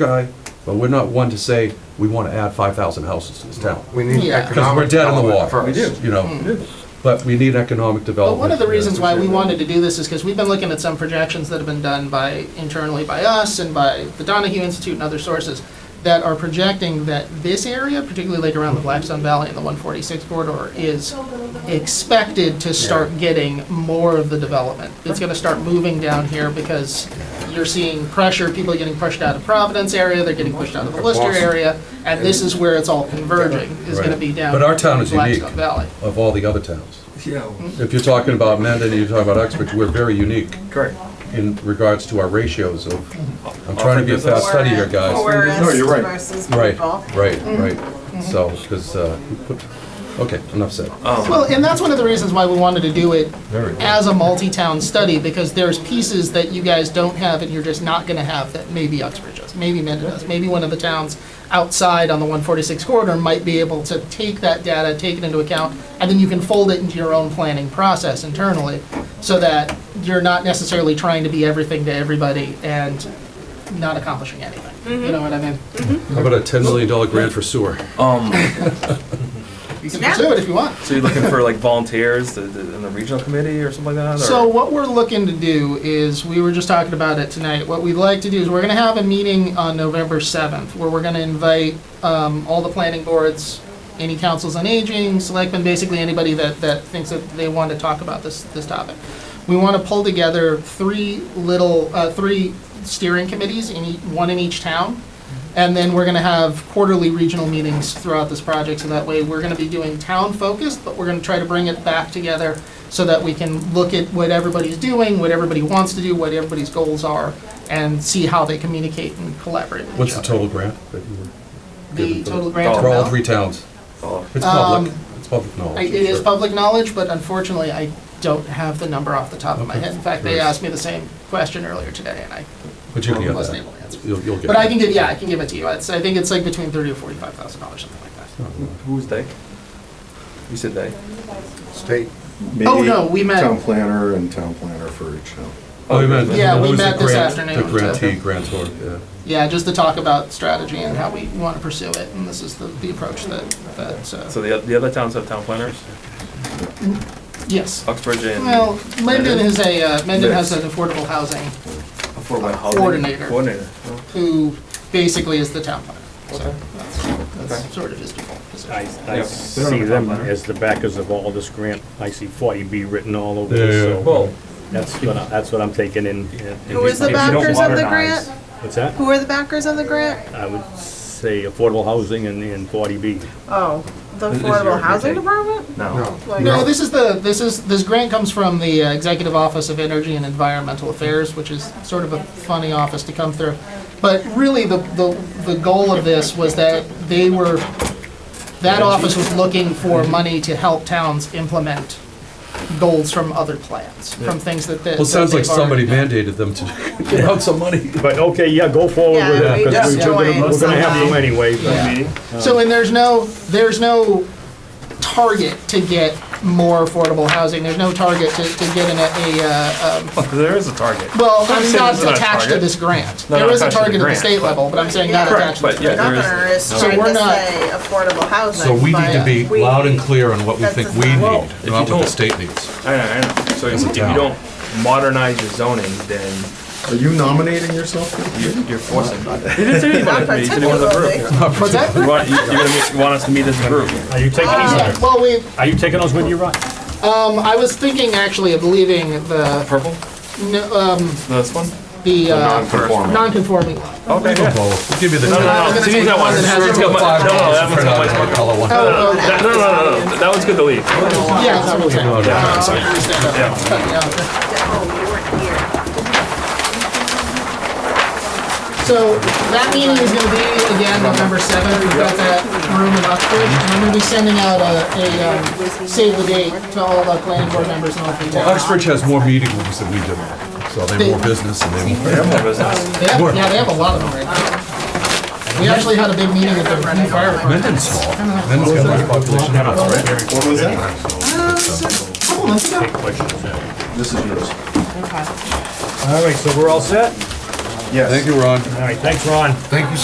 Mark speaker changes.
Speaker 1: guy, but we're not one to say, we want to add 5,000 houses to this town.
Speaker 2: We need
Speaker 3: Yeah. 'Cause
Speaker 1: Because we're
Speaker 2: economic
Speaker 1: dead in the
Speaker 2: development
Speaker 1: water.
Speaker 2: first.
Speaker 1: You know, but we need economic
Speaker 3: Hmm. But
Speaker 1: development.
Speaker 3: one of the reasons why we wanted to do this is because we've been looking at some projections that have been done by, internally by us and by the Donahue Institute and other sources that are projecting that this area, particularly like around the Blackstone Valley and the 146 corridor, is expected to start getting more of the development. It's gonna start moving down here because you're seeing pressure, people are getting pushed out of Providence area, they're getting pushed out of the Lister
Speaker 2: Boston.
Speaker 3: area, and this is where it's all converging, is gonna be
Speaker 1: Right.
Speaker 3: down.
Speaker 1: But our town is
Speaker 3: in Blackstone
Speaker 1: unique.
Speaker 3: Valley.
Speaker 1: Of all the other towns.
Speaker 4: Yeah,
Speaker 3: Hmm.
Speaker 1: If you're talking about Mendon, you're talking about Uxbridge, we're very unique
Speaker 4: correct.
Speaker 1: in regards to our ratios of, I'm trying to be a fast study here, guys.
Speaker 4: No,
Speaker 5: Forest
Speaker 4: you're right.
Speaker 5: versus
Speaker 1: Right,
Speaker 5: people.
Speaker 1: right,
Speaker 3: Mm-hmm.
Speaker 1: right. So, because, okay, enough said.
Speaker 2: Um,
Speaker 3: Well, and that's one of the reasons why we wanted to do it
Speaker 1: Very good.
Speaker 3: as a multi-town study, because there's pieces that you guys don't have and you're just not gonna have that maybe Uxbridge does, maybe Mendon does, maybe one of the towns outside on the one forty-six corridor might be able to take that data, take it into account, and then you can fold it into your own planning process internally, so that you're not necessarily trying to be everything to everybody and not accomplishing anything. You know what I mean?
Speaker 1: How about a $10 million grant for sewer?
Speaker 6: Um,
Speaker 3: You can
Speaker 5: Yeah.
Speaker 3: pursue it if you want.
Speaker 6: so you're looking for like volunteers to- to- in the regional committee or something like that? or-
Speaker 3: So what we're looking to do is, we were just talking about it tonight, what we'd like to do is, we're gonna have a meeting on November 7th, where we're gonna invite um, all the planning boards, any councils on aging, selectmen, basically anybody that, that thinks that they want to talk about this, this topic. We want to pull together three little, uh, three steering committees, in ea- one in each town, and then we're gonna have quarterly regional meetings throughout this project, so that way we're gonna be doing town-focused, but we're gonna try to bring it back together so that we can look at what everybody's doing, what everybody wants to do, what everybody's goals are, and see how they communicate and collaborate with
Speaker 1: What's
Speaker 3: each
Speaker 1: the
Speaker 3: other.
Speaker 1: total grant that you were?
Speaker 3: The total grant
Speaker 1: For all
Speaker 3: amount?
Speaker 1: three towns?
Speaker 6: Oh,
Speaker 1: It's public,
Speaker 3: Um,
Speaker 1: it's public knowledge.
Speaker 3: I- It
Speaker 1: I'm
Speaker 3: is
Speaker 1: sure.
Speaker 3: public knowledge, but unfortunately, I don't have the number off the top of my
Speaker 1: Okay.
Speaker 3: head. In fact, they
Speaker 1: Right.
Speaker 3: asked me the same question earlier today, and I
Speaker 1: But you can get
Speaker 3: wasn't able
Speaker 1: that.
Speaker 3: to answer.
Speaker 1: You'll, you'll get.
Speaker 3: But I
Speaker 1: it.
Speaker 3: can give, yeah, I can give it to you. It's, I think it's like between thirty or forty-five thousand dollars, something like
Speaker 6: Hmm.
Speaker 3: that.
Speaker 6: who's they? You said they.
Speaker 2: State,
Speaker 3: Oh, no, we met-
Speaker 7: Town planner and town planner for each town.
Speaker 1: Oh, we meant.
Speaker 3: Yeah, we
Speaker 1: it was the
Speaker 3: met this
Speaker 1: grant- The
Speaker 3: afternoon,
Speaker 1: grantee,
Speaker 3: too.
Speaker 1: grantor, yeah.
Speaker 3: Yeah, just to talk about strategy and how we want to pursue it, and this is the, the approach that, that,
Speaker 6: So
Speaker 3: uh,
Speaker 6: the, oth- the other towns have town planners?
Speaker 3: yes.
Speaker 6: Uxbridge and.
Speaker 3: Well, Mendon is a, uh, Mendon has an
Speaker 6: uh, Yes.
Speaker 3: affordable housing
Speaker 6: Affordable housing
Speaker 3: coordinator.
Speaker 6: Coordinator. Oh,
Speaker 3: who basically is the town planner. So
Speaker 6: Okay.
Speaker 3: that's, that's
Speaker 6: Okay.
Speaker 3: sort of his default position.
Speaker 8: I,
Speaker 6: Yeah.
Speaker 8: I see them as the backers of all this grant. I see 40B written all over
Speaker 1: Yeah, yeah.
Speaker 8: this, so
Speaker 6: Well,
Speaker 8: that's what, I- that's what I'm taking in. in-
Speaker 5: Who is the
Speaker 8: if you don't
Speaker 5: backers of the
Speaker 8: modernize-
Speaker 5: grant?
Speaker 8: What's that?
Speaker 5: Who are the backers of the grant?
Speaker 8: I would say affordable housing and, and 40B.
Speaker 5: Oh, the
Speaker 6: Is- is your-
Speaker 5: Affordable Housing
Speaker 6: okay.
Speaker 5: Department?
Speaker 6: no.
Speaker 2: no.
Speaker 5: Like-
Speaker 3: No, this is the, this is, this grant comes from the uh, Executive Office of Energy and Environmental Affairs, which is sort of a funny office to come through. But really, the, the, the goal of this was that they were, that office was looking for money to help towns implement goals from other plans, from things that they.
Speaker 1: Well, it sounds like somebody mandated them to get out some money.
Speaker 8: But, okay, yeah, go forward with
Speaker 5: Yeah,
Speaker 8: it,
Speaker 5: we
Speaker 8: because
Speaker 5: just
Speaker 8: we're gonna,
Speaker 5: joined
Speaker 8: we're gonna have
Speaker 5: somehow.
Speaker 8: them anyway. but-
Speaker 3: So, and there's no, there's no target to get more affordable housing, there's no target to, to getting a, a, uh, um,
Speaker 6: There is a target.
Speaker 3: Well, I'm
Speaker 6: saying
Speaker 3: not
Speaker 6: there's not a
Speaker 3: attached to
Speaker 6: target.
Speaker 3: this grant.
Speaker 6: No,
Speaker 3: There
Speaker 6: not
Speaker 3: is a
Speaker 6: attached to the
Speaker 3: target at the
Speaker 6: grant,
Speaker 3: state level, but I'm saying not
Speaker 5: Correct,
Speaker 3: attached to
Speaker 6: But
Speaker 3: this
Speaker 6: yeah,
Speaker 3: grant.
Speaker 6: there is.
Speaker 5: Governor is
Speaker 3: So
Speaker 5: trying
Speaker 3: we're
Speaker 5: to
Speaker 3: not-
Speaker 5: say affordable housing.
Speaker 1: So we need to
Speaker 5: but
Speaker 1: be
Speaker 5: we-
Speaker 1: loud and clear on what we
Speaker 5: That's
Speaker 1: think
Speaker 5: a
Speaker 1: we
Speaker 5: sign.
Speaker 1: need,
Speaker 6: Well, if you
Speaker 1: not what the
Speaker 6: don't-
Speaker 1: state needs.
Speaker 6: I know, I know. So if if you
Speaker 1: down.
Speaker 6: don't modernize your zoning, then
Speaker 7: Are you nominating yourself?
Speaker 6: you're, you're forcing. You didn't say
Speaker 5: Not
Speaker 6: anybody, you said you wanted a
Speaker 5: particularly.
Speaker 6: group.
Speaker 3: What's that?
Speaker 6: You want, you, you're gonna meet- you want us to meet as a group?
Speaker 8: Are you taking
Speaker 3: Yeah,
Speaker 8: these,
Speaker 3: Well, we,
Speaker 8: are you taking those with you, Ron?
Speaker 3: um, I was thinking actually of leaving the,
Speaker 6: Purple?
Speaker 3: no, um,
Speaker 6: This one?
Speaker 3: the, uh,
Speaker 7: Non-conforming.
Speaker 3: non-conforming one.
Speaker 6: Okay, yeah.
Speaker 1: We'll give you the.
Speaker 6: No,
Speaker 1: time.
Speaker 6: no, no. See, Oh, that one's,
Speaker 3: Has
Speaker 6: that's
Speaker 3: it
Speaker 6: got
Speaker 3: got
Speaker 6: my,
Speaker 1: Five
Speaker 6: no, no, that
Speaker 1: dollars
Speaker 6: one's
Speaker 1: for
Speaker 6: got
Speaker 1: not
Speaker 6: my,
Speaker 1: a color one.
Speaker 3: Oh, okay.
Speaker 6: that- no, no, no, no, that one's good to leave.
Speaker 3: Oh, Yeah, that's what
Speaker 1: No,
Speaker 3: I'm
Speaker 1: no, no, sorry.
Speaker 3: saying.
Speaker 5: Oh, you weren't here.
Speaker 3: So that meeting is gonna be again November seventh. We've got that room in Oxford. And I'm gonna be sending out a, a, um, save the date to all the planning board members and all three
Speaker 1: Well,
Speaker 3: towns.
Speaker 1: Uxbridge has more meeting rooms than we do, so they have more business and they have more.
Speaker 3: They have, yeah, they have a lot of them right now. We actually had a big meeting at the new fire department
Speaker 1: Mendon's small. Mendon's got less population than us, right?
Speaker 7: What was that?
Speaker 3: a couple months ago.
Speaker 7: This is yours.
Speaker 8: All right, so we're all set?
Speaker 9: Yes.
Speaker 10: Thank you, Ron.
Speaker 1: All right, thanks, Ron.
Speaker 8: Thank you